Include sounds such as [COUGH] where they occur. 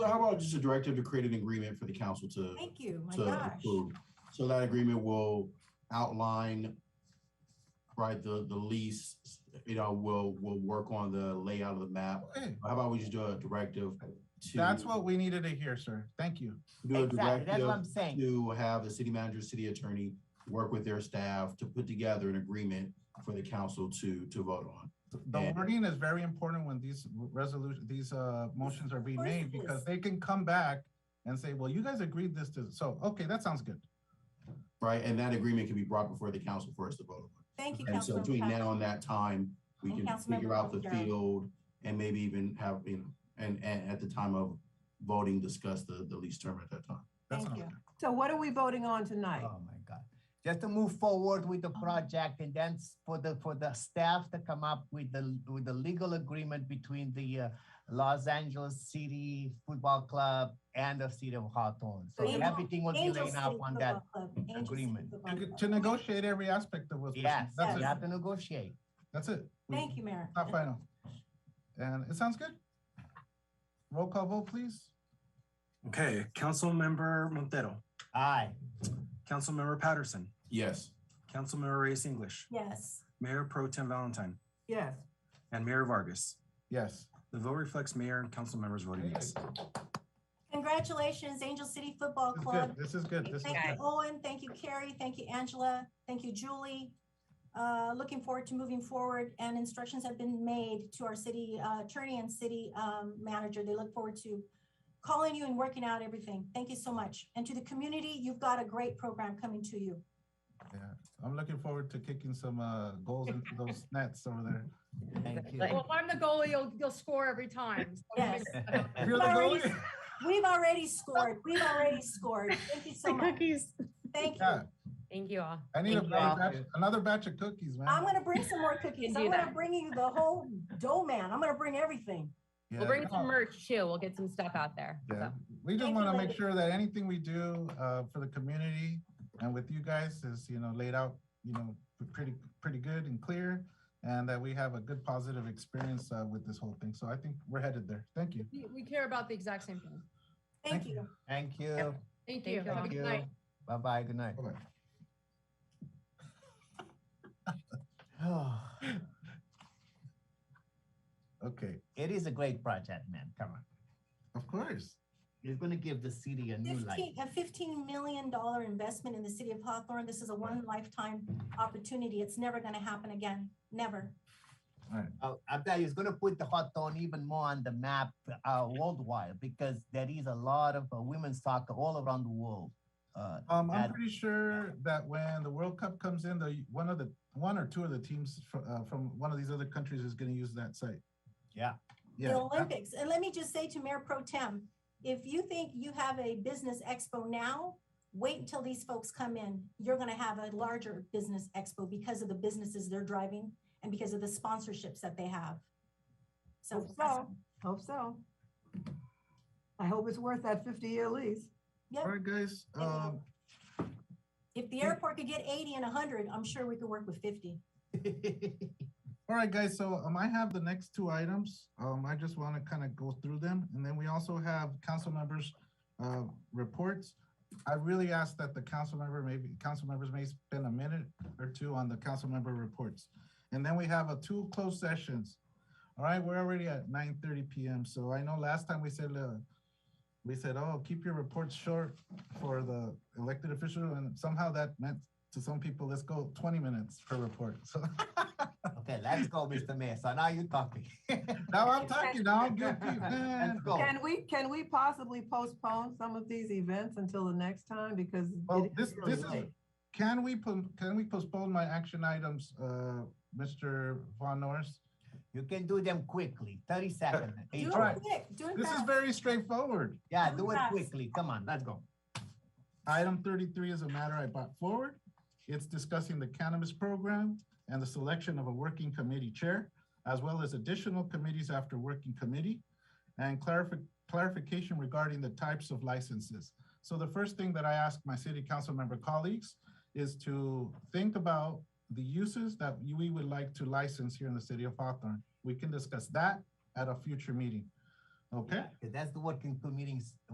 how about just a directive to create an agreement for the council to, Thank Oh you, my to gosh. approve? So that agreement will outline, right, the, the lease, you know, will, will work on the layout of the map. Okay, How about we just do a directive to? That's what we needed to hear, sir. Thank you. Do a Exactly, that's what directive I'm saying. to have the city manager, city attorney, work with their staff to put together an agreement for the council to, to vote on. The Yeah. wording is very important when these resolution, these uh motions are being course it made because is. they can come back and say, well, you guys agreed this to, so, okay, that sounds good. right? And that agreement can be brought before the council for us to vote Thank you, on. And so Councilmember. between now Cotton. and that time, we And can Councilmember figure out the Bojangles. field and maybe even have, you know, and, and at the time of voting, discuss the, the lease term at that time. That Thank sounds you. good. So what are we voting on tonight? Oh my God. Just to move forward with the project and then s- for the, for the staff to come up with the, with the legal agreement between the uh, Los Angeles City Football Club and the city of Hawthorne. So Angel- everything will be Angel laid out City on Football that. Club, Angel City agreement. To Football g- Club. To negotiate every aspect of what's. Yes, That's we it. have to negotiate. That's it. We- Thank you, Mayor. Not final. And it sounds good. Roll call vote, please. Okay, Councilmember Montero, Aye. Councilmember Patterson, Yes. Councilmember Reyes English, Yes, Mayor Pro Tem Valentine, Yes. and Mayor Vargas. Yes. The vote reflects mayor and council members voting yes. congratulations, Angel City Football This is Club. good. This is good. This is Thank you, good. Owen. Thank you, Carrie. Thank you, Angela. Thank you, Julie. Uh, Looking forward to moving forward and instructions have been made to our city uh, attorney and city um, manager. They look forward to calling you and working out everything. Thank you so much. And to the community, you've got a great program coming to you. Yeah. I'm looking forward to kicking some uh goals into [LAUGHS] those nets over there. Thank you. Well, if I'm the goalie, you'll, you'll score every time. So Yes. If you're the Sorry. goalie- We've already scored. We've already scored. Thank you so much. Thank you. Yeah, Thank you all. I need a- Thank you. another batch, another batch of cookies, man. I'm gonna bring some more cookies. do I'm gonna that. bring you the whole dough man. I'm gonna bring everything. Yeah. We'll bring some merch too. We'll get some stuff out there. Yeah, So, we just Thank want you, to make ladies. sure that anything we do uh, for the community and with you guys is, you know, laid out, you know, p- pretty, pretty good and clear. And that we have a good positive experience uh, with this whole thing. So I think we're headed there. Thank you. We, we care about the exact same thing. Thank Thank you. Thank you. Thank you. Have a Thank good you. night. Bye-bye. Good night. Bye-bye. Okay, [SIGHS] It is a great project, man. Come on. of course. It's gonna give the city a new life. Fifteen, a fifteen million dollar investment in the city of Hawthorne. This is a one lifetime opportunity. It's never gonna happen again. Never. Uh, I'm telling you, it's going to put the Hawthorne even more on the map uh, worldwide because there is a lot of uh, women's soccer all around the world. Uh, Um, I'm That- pretty sure that when the World Cup comes in, the, one of the, one or two of the teams from, uh, from one of these other countries is going to use that site. Yeah. The Yeah. ab- Olympics. And let me just say to Mayor Pro Tem, if you think you have a business expo now, wait until these folks come in. You're gonna have a larger business expo because of the businesses they're driving and because of the sponsorships that they have. So, Hope so. Hope so. I hope it's worth that fifty-year lease. yeah, All right, guys. Um, if the airport could get eighty and hundred, I'm sure we could work with fifty. All right, guys, so um, I have the next two items. Um, I just want to kind of go through them. And then we also have council members' uh, reports. I really ask that the council member, maybe, council members may spend a minute or two on the council member reports. And then we have a two closed sessions. All right, we're already at nine thirty PM. So I know last time we said, uh, we said, oh, keep your reports short for the elected official. And somehow that meant to some people, let's go twenty minutes per report. [LAUGHS] So okay, let's go, Mr. Mayor. So now you're talking. [LAUGHS] Now [LAUGHS] I'm talking, now I'm guilty. Let's man. go. Can we, can we possibly postpone some of these events until the next time because? Well, it this, really this is, late. can we, po- can we postpone my action items, uh, Mr. Von Norris? You can do them quickly, 30 seconds. Do each it one. Alright. quick, do it This is fast. very straightforward. Yeah, do it Yes. quickly. Come on, let's go. Item thirty-three is a matter I brought forward. It's discussing the cannabis program and the selection of a working committee chair, as well as additional committees after working committee, and clarifi- clarification regarding the types of licenses. So the first thing that I ask my city council member colleagues is to think about the uses that we would like to license here in the city of Hawthorne. We can discuss that at a future meeting. Okay. Because that's the working committee's